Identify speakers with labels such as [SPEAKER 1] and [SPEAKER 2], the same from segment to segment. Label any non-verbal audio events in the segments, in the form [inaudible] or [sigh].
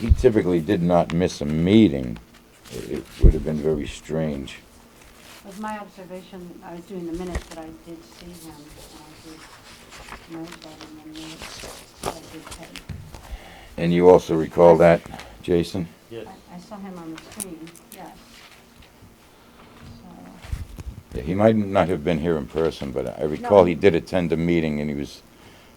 [SPEAKER 1] He typically did not miss a meeting. It it would have been very strange.
[SPEAKER 2] was my observation, I was doing the minutes, but I did see him, and I did note that in the minutes, I did take.
[SPEAKER 1] And you also recall that, Jason?
[SPEAKER 3] Yes.
[SPEAKER 2] I, I saw him on the screen, yes. So,
[SPEAKER 1] Yeah, He might not have been here in person, but I recall he did attend a meeting and he was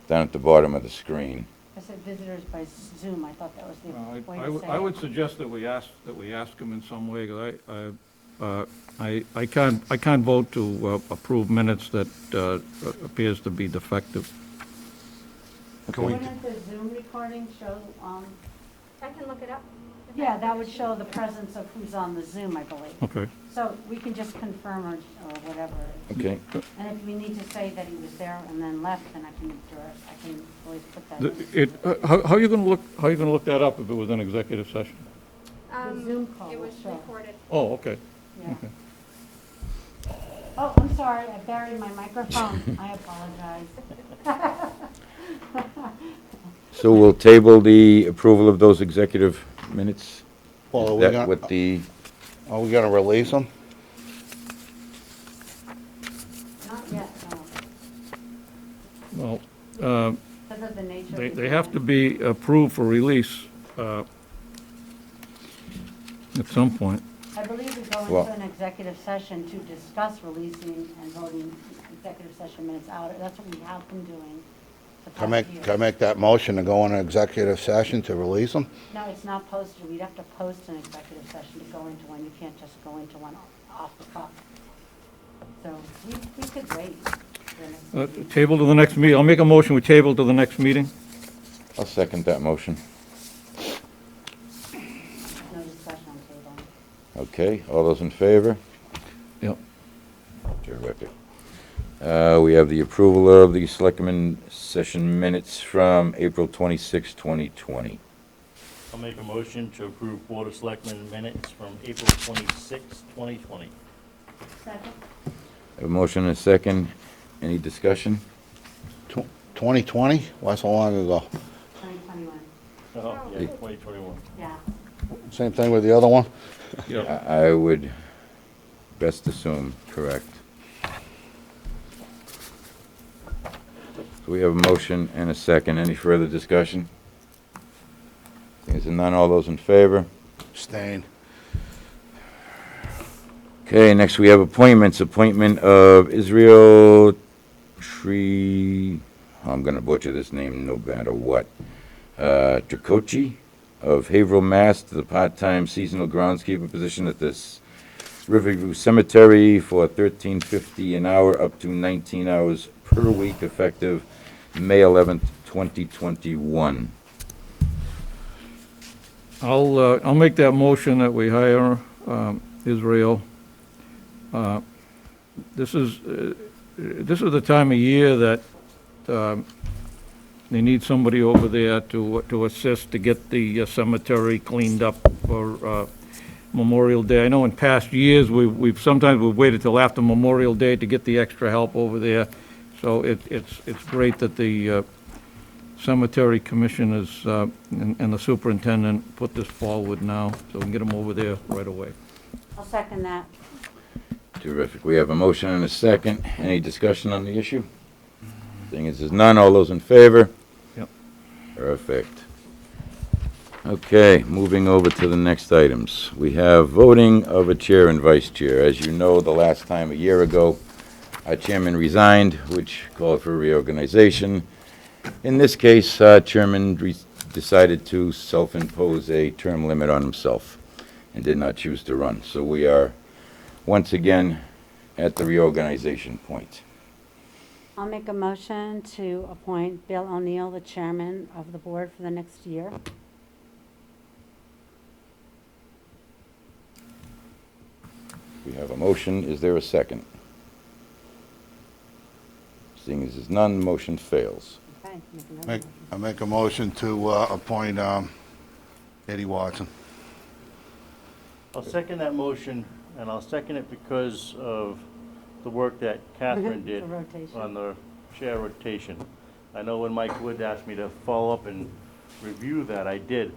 [SPEAKER 1] down at the bottom of the screen.
[SPEAKER 2] I said visitors by Zoom, I thought that was the
[SPEAKER 4] Well, I-
[SPEAKER 2] way
[SPEAKER 4] I
[SPEAKER 2] to
[SPEAKER 4] would-
[SPEAKER 2] say it.
[SPEAKER 4] I would suggest that we ask, that we ask him in some way, 'cause I- I, uh, I, I can't, I can't vote to uh, approve minutes that uh, appears to be defective.
[SPEAKER 1] Can we-
[SPEAKER 2] Wouldn't the Zoom recording show, um,
[SPEAKER 5] I can look it up. if
[SPEAKER 2] yeah,
[SPEAKER 5] that's
[SPEAKER 2] that would
[SPEAKER 5] sufficient.
[SPEAKER 2] show the presence of who's on the Zoom, I believe.
[SPEAKER 1] [laughs]
[SPEAKER 4] Okay.
[SPEAKER 2] So we can just confirm or, or whatever.
[SPEAKER 1] Okay.
[SPEAKER 2] And if we need to say that he was there and then left, then I can, direct- I can always put that
[SPEAKER 4] The-
[SPEAKER 2] in.
[SPEAKER 4] It, uh, how, how are you going to look, how you going to look that up if it was an executive session?
[SPEAKER 5] Um,
[SPEAKER 2] The Zoom call
[SPEAKER 5] It
[SPEAKER 2] will
[SPEAKER 5] was
[SPEAKER 2] show.
[SPEAKER 5] recorded.
[SPEAKER 4] Oh, okay.
[SPEAKER 2] Yeah. Oh, I'm sorry, I buried my microphone. I apologize.
[SPEAKER 1] So we'll table the approval of those executive minutes?
[SPEAKER 6] Well, are
[SPEAKER 1] Is
[SPEAKER 6] we
[SPEAKER 1] that
[SPEAKER 6] gonna,
[SPEAKER 1] what the,
[SPEAKER 6] are we gonna release them?
[SPEAKER 2] Not yet, no.
[SPEAKER 4] Well, um,
[SPEAKER 2] Because of the nature. of
[SPEAKER 4] They,
[SPEAKER 2] the
[SPEAKER 4] they have to
[SPEAKER 2] event.
[SPEAKER 4] be approved for release uh, at some point.
[SPEAKER 2] I believe we go
[SPEAKER 1] Well-
[SPEAKER 2] into an executive session to discuss releasing and voting executive session minutes out. That's what we have been doing. the
[SPEAKER 6] Can I
[SPEAKER 2] past
[SPEAKER 6] make,
[SPEAKER 2] year.
[SPEAKER 6] can I make that motion to go into executive session to release them?
[SPEAKER 2] No, it's not posted. We'd have to post an executive session to go into one. You can't just go into one off the cuff. So we, we could wait. for the next
[SPEAKER 4] Uh,
[SPEAKER 2] meeting.
[SPEAKER 4] Table to the next meeting, I'll make a motion, we table to the next meeting.
[SPEAKER 1] I'll second that motion.
[SPEAKER 2] No
[SPEAKER 4] Uh,
[SPEAKER 2] discussion on table.
[SPEAKER 1] Okay, all those in favor?
[SPEAKER 4] Yep.
[SPEAKER 1] Terrific. Uh, we have the approval of the selectmen session minutes from April 26, 2020.
[SPEAKER 3] I'll make a motion to approve Board of Selectmen minutes from April 26, 2020.
[SPEAKER 2] Second?
[SPEAKER 1] A motion and a second. Any discussion?
[SPEAKER 6] Twenty twenty, that's so long ago.
[SPEAKER 2] 2021,
[SPEAKER 3] Oh, yeah,
[SPEAKER 1] Yeah.
[SPEAKER 3] 2021.
[SPEAKER 2] yeah.
[SPEAKER 6] Same thing with the other one?
[SPEAKER 4] Yep.
[SPEAKER 1] I I would best assume correct. So we have a motion and a second. Any further discussion? Is none, all those in favor?
[SPEAKER 6] Stain.
[SPEAKER 1] Okay, next we have appointments. Appointment of Israel Tree, I'm gonna butcher this name no matter what. Uh, Tricoci of Haverhill, Mass. to the part-time seasonal groundskeeper position at this Riverview Cemetery for thirteen fifty an hour, up to nineteen hours per week, effective May eleventh, twenty twenty-one.
[SPEAKER 4] I'll, uh, I'll make that motion that we hire um, Israel. Uh, This is, uh, this is the time of year that um, they need somebody over there to, to assist to get the uh, cemetery cleaned up for uh, Memorial Day. I know in past years, we- we've, sometimes we've waited till after Memorial Day to get the extra help over there. So it- it's, it's great that the, uh, cemetery commissioners uh, and and the superintendent put this forward now, so we can get them over there right away.
[SPEAKER 2] I'll second that.
[SPEAKER 1] Terrific. We have a motion and a second. Any discussion on the issue? Seeing as there's none, all those in favor?
[SPEAKER 4] Yep.
[SPEAKER 1] Perfect. Okay, moving over to the next items. We have voting of a chair and vice chair. As you know, the last time, a year ago, our chairman resigned, which called for reorganization. In this case, uh, Chairman re- decided to self-impose a term limit on himself and did not choose to run. So we are once again at the reorganization point.
[SPEAKER 2] I'll make a motion to appoint Bill O'Neill, the chairman of the board for the next year.
[SPEAKER 1] We have a motion. Is there a second? Seeing as there's none, motion fails.
[SPEAKER 2] Okay, make another
[SPEAKER 6] Make,
[SPEAKER 2] motion.
[SPEAKER 6] I make a motion to, uh, appoint, um, Eddie Watson.
[SPEAKER 3] I'll second that motion, and I'll second it because of the work that
[SPEAKER 2] [laughs]
[SPEAKER 3] Catherine
[SPEAKER 2] The
[SPEAKER 3] did
[SPEAKER 2] rotation.
[SPEAKER 3] on the chair rotation. I know when Mike Wood asked me to follow up and review that, I did,